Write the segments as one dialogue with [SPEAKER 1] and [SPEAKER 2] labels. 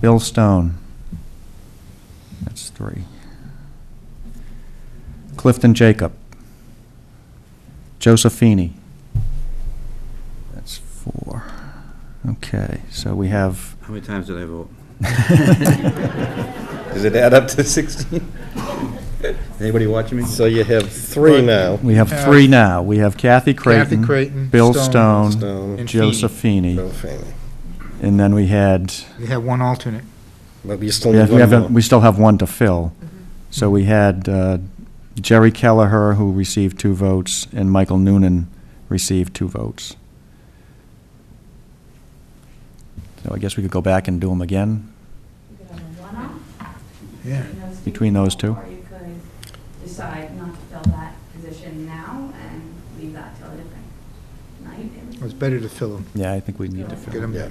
[SPEAKER 1] Bill Stone. That's three. Clifton Jacob. Josephini. That's four. Okay, so we have,
[SPEAKER 2] How many times did I vote?
[SPEAKER 3] Does it add up to 16?
[SPEAKER 2] Anybody watching me?
[SPEAKER 3] So you have three now.
[SPEAKER 1] we have three now. We have Kathy Creighton.
[SPEAKER 4] Creighton,
[SPEAKER 1] Bill Stone,
[SPEAKER 4] Stone,
[SPEAKER 3] Stone,
[SPEAKER 4] And
[SPEAKER 1] Josephini.
[SPEAKER 3] Bill Fanning.
[SPEAKER 1] And then we had,
[SPEAKER 4] You have one alternate.
[SPEAKER 3] But you still
[SPEAKER 1] we
[SPEAKER 3] need
[SPEAKER 1] have- we
[SPEAKER 3] one
[SPEAKER 1] have,
[SPEAKER 3] more.
[SPEAKER 1] we still have one to fill. So we had uh, Jerry Kelleher, who received two votes, and Michael Noonan received two votes. So I guess we could go back and do them again.
[SPEAKER 5] You could have a one-off
[SPEAKER 4] Yeah.
[SPEAKER 5] between those
[SPEAKER 1] Between those
[SPEAKER 5] two people,
[SPEAKER 1] two.
[SPEAKER 5] Or you could decide not to fill that position now and leave that till a different night. and-
[SPEAKER 4] It's better to fill them.
[SPEAKER 1] Yeah, I think we need to
[SPEAKER 4] Get
[SPEAKER 1] fill them.
[SPEAKER 4] 'em-
[SPEAKER 3] Yeah.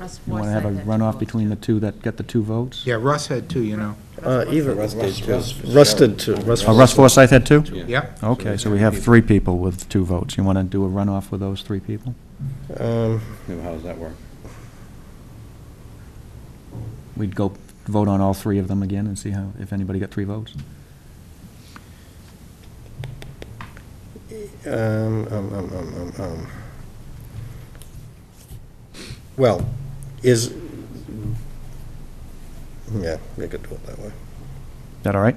[SPEAKER 6] Russ
[SPEAKER 1] You
[SPEAKER 6] Moore
[SPEAKER 1] want to have a
[SPEAKER 6] said that
[SPEAKER 1] runoff
[SPEAKER 6] too.
[SPEAKER 1] between the two that got the two votes?
[SPEAKER 4] Yeah, Russ had two, you know.
[SPEAKER 3] Uh, Either Russ
[SPEAKER 2] Russ
[SPEAKER 3] did,
[SPEAKER 2] was-
[SPEAKER 3] 'cause Russ did too.
[SPEAKER 1] Oh, Russ Forsyth had two?
[SPEAKER 2] Yeah.
[SPEAKER 4] Yep.
[SPEAKER 1] Okay, so we have three people with two votes. You want to do a runoff with those three people?
[SPEAKER 3] Um,
[SPEAKER 2] Yeah, How does that work?
[SPEAKER 1] We'd go vote on all three of them again and see how, if anybody got three votes?
[SPEAKER 3] um, um, um, um, um, um. Well, is, yeah, we could do it that way.
[SPEAKER 1] That all right?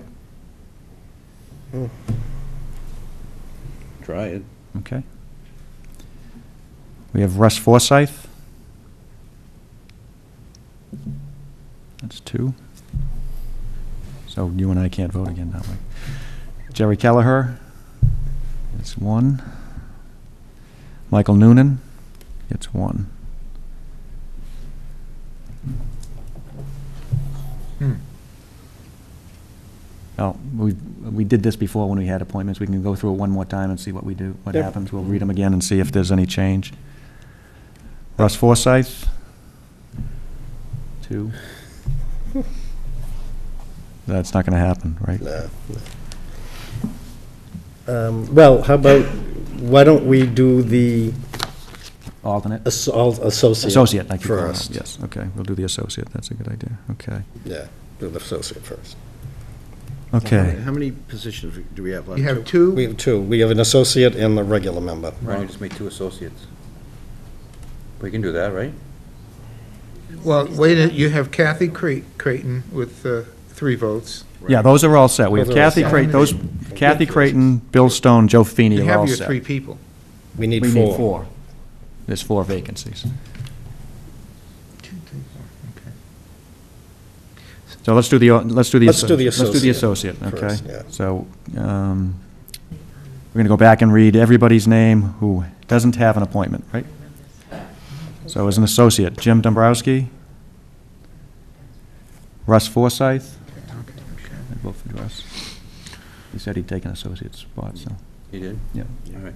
[SPEAKER 2] Try it.
[SPEAKER 1] Okay. We have Russ Forsyth. That's two. So you and I can't vote again that way. Jerry Kelleher, that's one. Michael Noonan gets one.
[SPEAKER 4] Hmm.
[SPEAKER 1] Oh, we, we did this before when we had appointments. We can go through it one more time and see what we do, what
[SPEAKER 3] Yep.
[SPEAKER 1] happens. We'll read them again and see if there's any change. Russ Forsyth, two. That's not going to happen, right?
[SPEAKER 3] No. Um, Well, how about, why don't we do the
[SPEAKER 1] Alternate?
[SPEAKER 3] assault associate?
[SPEAKER 1] Associate, I keep calling it.
[SPEAKER 3] First.
[SPEAKER 1] Yes, okay, we'll do the associate. That's a good idea, okay.
[SPEAKER 3] Yeah, do the associate first.
[SPEAKER 1] Okay,
[SPEAKER 2] How many positions do we have left?
[SPEAKER 4] You have
[SPEAKER 3] We
[SPEAKER 4] two,
[SPEAKER 3] have two. We have an associate and the regular member.
[SPEAKER 2] Why don't we just make two associates? We can do that, right?
[SPEAKER 4] well, wait, a- you have Kathy Cre- Creighton with uh, three votes.
[SPEAKER 1] yeah, those are all set. We have
[SPEAKER 3] Those are all
[SPEAKER 1] Kathy
[SPEAKER 3] set.
[SPEAKER 1] Creighton, those, Kathy Creighton, Bill Stone, Joe Feeney
[SPEAKER 4] You
[SPEAKER 1] are all
[SPEAKER 4] have your
[SPEAKER 1] set.
[SPEAKER 4] three people.
[SPEAKER 3] We need
[SPEAKER 1] We
[SPEAKER 3] four.
[SPEAKER 1] need four. There's four vacancies.
[SPEAKER 4] Two, three, four, okay.
[SPEAKER 1] So let's do the, let's do the.
[SPEAKER 3] Let's do the
[SPEAKER 1] associ- Let's do the
[SPEAKER 3] associate
[SPEAKER 1] associate, okay?
[SPEAKER 3] first, yeah.
[SPEAKER 1] So, um, we're gonna go back and read everybody's name who doesn't have an appointment, right? So as an associate, Jim Dombrowski, Russ Forsyth,
[SPEAKER 4] Okay, okay.
[SPEAKER 1] I vote for Russ. He said he'd take an associate spot, so,
[SPEAKER 2] You did?
[SPEAKER 1] yeah.
[SPEAKER 2] All right.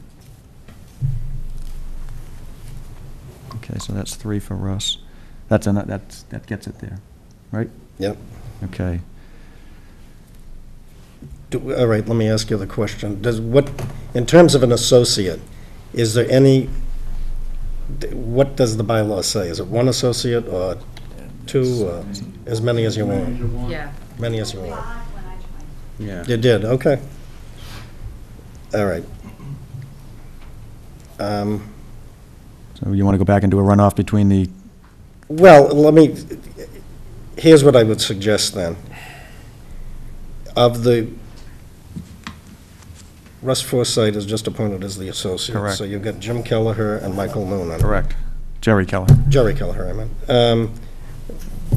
[SPEAKER 1] Okay, so that's three for Russ. That's, an- that's, that gets it there, right?
[SPEAKER 3] Yep.
[SPEAKER 1] Okay.
[SPEAKER 3] Do- All right, let me ask you the question. Does what, in terms of an associate, is there any, d- what does the bylaw say? Is it one associate or two, or as many as you want?
[SPEAKER 6] Yeah.
[SPEAKER 3] Many as you want.
[SPEAKER 5] Five when I joined.
[SPEAKER 2] Yeah.
[SPEAKER 3] You did, okay. All right. Um,
[SPEAKER 1] So you wanna go back and do a runoff between the
[SPEAKER 3] Well, let me, here's what I would suggest then. Of the, Russ Forsythe is just appointed as the associate.
[SPEAKER 1] Correct.
[SPEAKER 3] So you've got Jim Kelleher and Michael Noonan.
[SPEAKER 1] Correct. Jerry Keller.
[SPEAKER 3] Jerry Kelleher, I meant. Um,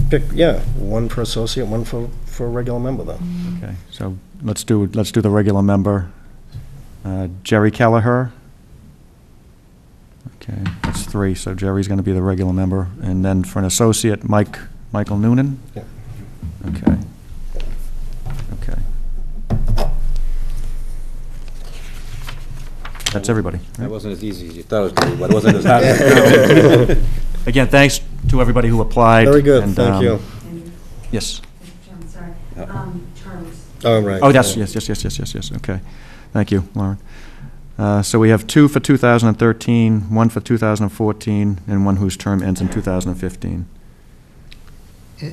[SPEAKER 3] Pick, yeah, one for associate, one for, for a regular member then.
[SPEAKER 1] Okay, so let's do, let's do the regular member. Uh, Jerry Kelleher. Okay, that's three, so Jerry's going to be the regular member. And then for an associate, Mike, Michael Noonan?
[SPEAKER 3] Yeah.
[SPEAKER 1] Okay. Okay. That's everybody. right?
[SPEAKER 2] That wasn't as easy as you thought it was going to be, but it wasn't as hard as I thought.
[SPEAKER 1] Again, thanks to everybody who applied.
[SPEAKER 3] Very good,
[SPEAKER 1] and,
[SPEAKER 3] thank
[SPEAKER 1] um,
[SPEAKER 3] you.
[SPEAKER 5] And,
[SPEAKER 1] Yes.
[SPEAKER 5] Mr. Chairman, sorry,
[SPEAKER 2] Uh-oh.
[SPEAKER 5] um, Charles.
[SPEAKER 3] All right.
[SPEAKER 1] Oh, that's, yes, yes, yes, yes, yes, yes, okay. Thank you, Lauren. Uh, So we have two for 2013, one for 2014, and one whose term ends in 2015.